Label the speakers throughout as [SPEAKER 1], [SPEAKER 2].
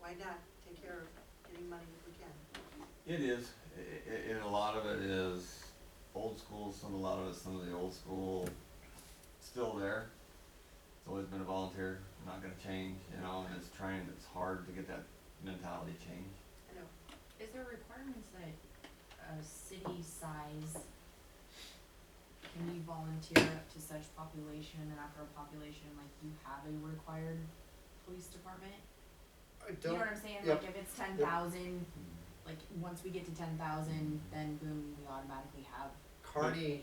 [SPEAKER 1] why not take care of getting money if we can?
[SPEAKER 2] It is, I- I- and a lot of it is old school, some, a lot of it, some of the old school, still there. It's always been a volunteer, not gonna change, you know, and it's trying, it's hard to get that mentality changed.
[SPEAKER 1] I know,
[SPEAKER 3] Is there requirements that a city size can you volunteer up to such population and after a population, like you have a required police department?
[SPEAKER 4] I
[SPEAKER 3] You know
[SPEAKER 4] don't,
[SPEAKER 3] what I'm saying?
[SPEAKER 4] yep,
[SPEAKER 3] Like if it's ten thousand, like once we get to ten thousand, then boom, we automatically have
[SPEAKER 4] Carney,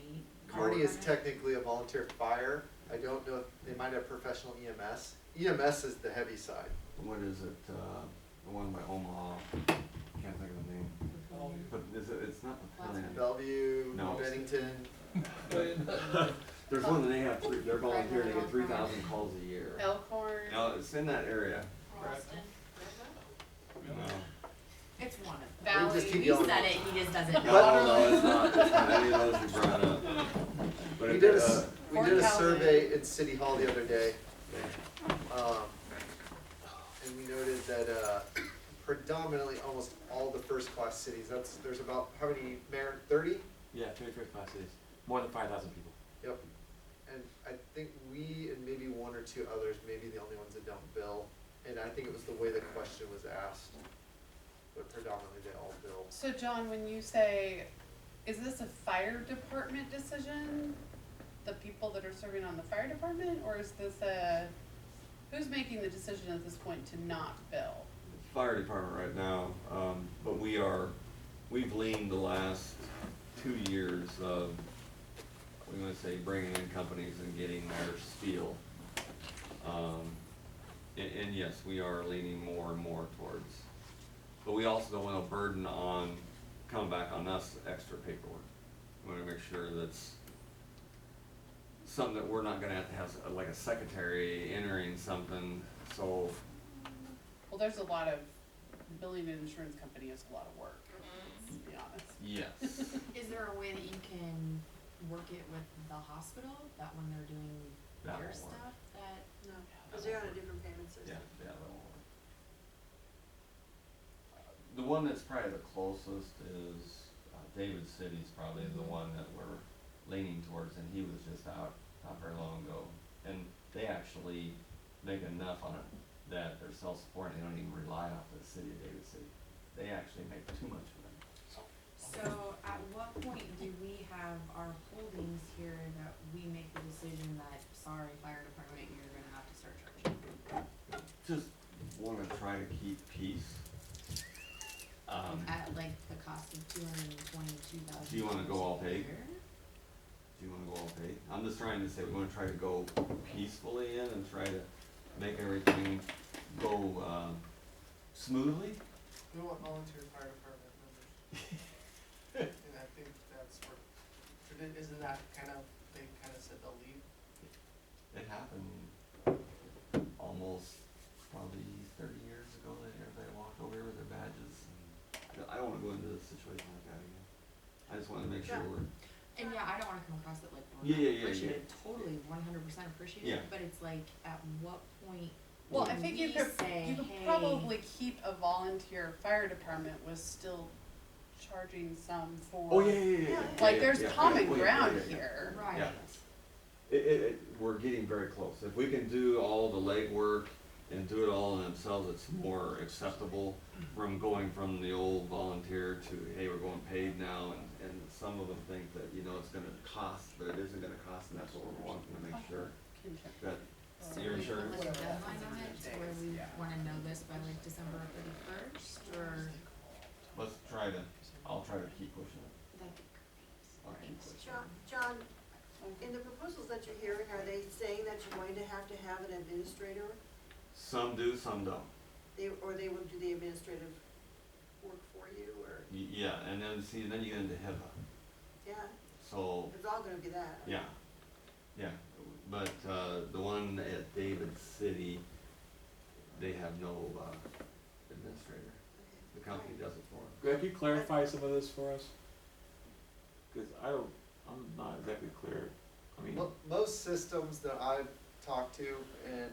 [SPEAKER 3] eight.
[SPEAKER 4] Carney is
[SPEAKER 3] requirement.
[SPEAKER 4] technically a volunteer fire. I don't know, if- they might have professional E EMS. EMS is the heavy side.
[SPEAKER 2] What is it, uh, the one by Omaha, can't think of the name, but is it, it's not the
[SPEAKER 3] Last
[SPEAKER 2] plan.
[SPEAKER 4] Bellevue,
[SPEAKER 2] No.
[SPEAKER 4] Bennington,
[SPEAKER 2] There's one that they have, three- they're volunteer, they get three thousand calls a year.
[SPEAKER 5] Elkhorn.
[SPEAKER 2] No, it's in that area,
[SPEAKER 5] Charleston.
[SPEAKER 2] you know.
[SPEAKER 3] It's one of them.
[SPEAKER 5] Valley.
[SPEAKER 4] We just keep
[SPEAKER 3] He
[SPEAKER 4] yelling.
[SPEAKER 3] said it, he just doesn't know.
[SPEAKER 2] No, no, it's not, it's not any of those you brought up. But
[SPEAKER 4] We
[SPEAKER 2] it,
[SPEAKER 4] did a,
[SPEAKER 2] uh,
[SPEAKER 4] s- we did a survey in City Hall the other day, um, and we noted that, uh, predominantly almost all the first-class cities, that's, there's about, how many, Mayor, thirty?
[SPEAKER 6] Yeah, twenty-first class is more than five thousand people.
[SPEAKER 4] Yep. And I think we and maybe one or two others, maybe the only ones that don't bill, and I think it was the way the question was asked, but predominantly they all bill.
[SPEAKER 5] So John, when you say, is this a fire department decision? The people that are serving on the fire department, or is this a, who's making the decision at this point to not bill?
[SPEAKER 2] fire department right now, um, but we are, we've leaned the last two years of, we wanna say, bringing in companies and getting their steel. Um, and, and yes, we are leaning more and more towards, but we also don't want a burden on, come back on us extra paperwork. We wanna make sure that's something that we're not gonna have to have, uh, like a secretary entering something, so
[SPEAKER 5] Well, there's a lot of, billing an insurance company is a lot of work, to be honest.
[SPEAKER 2] Yes.
[SPEAKER 3] Is there a way that you can work it with the hospital, that when they're doing
[SPEAKER 2] That
[SPEAKER 3] their
[SPEAKER 2] won't work.
[SPEAKER 3] stuff, that,
[SPEAKER 1] no, because they're on a different payment system.
[SPEAKER 2] yeah, that one. The one that's probably the closest is, uh, David City's probably the one that we're leaning towards, and he was just out not very long ago. And they actually make enough on it that they're self-supporting, they don't even rely off the city of David City. They actually make too much of it.
[SPEAKER 3] so at what point do we have our holdings here that we make the decision that, sorry, fire department, you're gonna have to start charging?
[SPEAKER 2] Just wanna try to keep peace. Um,
[SPEAKER 3] At like the cost of two hundred and twenty-two thousand.
[SPEAKER 2] Do you wanna go all pig? Do you wanna go all paid? I'm just trying to say, we wanna try to go peacefully in and try to make everything go, um, smoothly.
[SPEAKER 7] We want volunteer fire department members. And I think that's where, but it- isn't that kind of, they kind of said they'll leave?
[SPEAKER 2] It happened almost probably thirty years ago that everybody walked over here with their badges. and I don't wanna go into a situation like that again. I just wanna make sure
[SPEAKER 1] Yeah.
[SPEAKER 2] we're,
[SPEAKER 3] And yeah, I don't wanna come across it like
[SPEAKER 2] Yeah,
[SPEAKER 3] we're
[SPEAKER 2] yeah,
[SPEAKER 3] not
[SPEAKER 2] yeah, yeah.
[SPEAKER 3] appreciative, totally, one hundred percent appreciative,
[SPEAKER 2] Yeah.
[SPEAKER 3] but it's like, at what point
[SPEAKER 5] Well, I
[SPEAKER 3] do
[SPEAKER 5] think you
[SPEAKER 3] we
[SPEAKER 5] could,
[SPEAKER 3] say,
[SPEAKER 5] you could
[SPEAKER 3] "Hey,
[SPEAKER 5] probably keep a volunteer fire department with still charging some for.
[SPEAKER 2] oh, yeah, yeah, yeah, yeah, yeah.
[SPEAKER 5] Like,
[SPEAKER 2] yeah,
[SPEAKER 5] there's
[SPEAKER 2] yeah, yeah,
[SPEAKER 5] common
[SPEAKER 2] oh, yeah, yeah,
[SPEAKER 5] ground
[SPEAKER 2] yeah, yeah.
[SPEAKER 5] here.
[SPEAKER 3] Right.
[SPEAKER 2] Yeah. It, it, it, we're getting very close. If we can do all the legwork and do it all in themselves, it's more acceptable from going from the old volunteer to, hey, we're going paid now, and, and some of them think that, you know, it's gonna cost, but it isn't gonna cost, and that's what we're wanting to make sure
[SPEAKER 5] Can check.
[SPEAKER 2] that
[SPEAKER 3] So
[SPEAKER 2] Your
[SPEAKER 3] we put
[SPEAKER 2] insurance?
[SPEAKER 3] like a
[SPEAKER 7] Whatever that
[SPEAKER 3] deadline on it,
[SPEAKER 7] is,
[SPEAKER 3] to where
[SPEAKER 7] days,
[SPEAKER 3] we
[SPEAKER 7] yeah.
[SPEAKER 3] wanna know this by like December thirty-first, or
[SPEAKER 2] Let's try to, I'll try to keep pushing it.
[SPEAKER 3] that'd be great.
[SPEAKER 2] I'll keep pushing
[SPEAKER 1] John, John, in the proposals that you're hearing, are they saying that you're going to have to have an administrator?
[SPEAKER 2] it. Some do, some don't.
[SPEAKER 1] They, or they will do the administrative work for you, or,
[SPEAKER 2] Y- Yeah, and then, see, then you get into HIPAA,
[SPEAKER 1] yeah,
[SPEAKER 2] so,
[SPEAKER 1] it's all gonna be that.
[SPEAKER 2] Yeah, yeah, but, uh, the one at David City, they have no, uh, administrator,
[SPEAKER 1] Okay.
[SPEAKER 2] the company does it for them.
[SPEAKER 6] Greg, can you clarify some of this for us? Cause I don't, I'm not exactly clear, I mean,
[SPEAKER 4] Mo- Most systems that I've talked to, and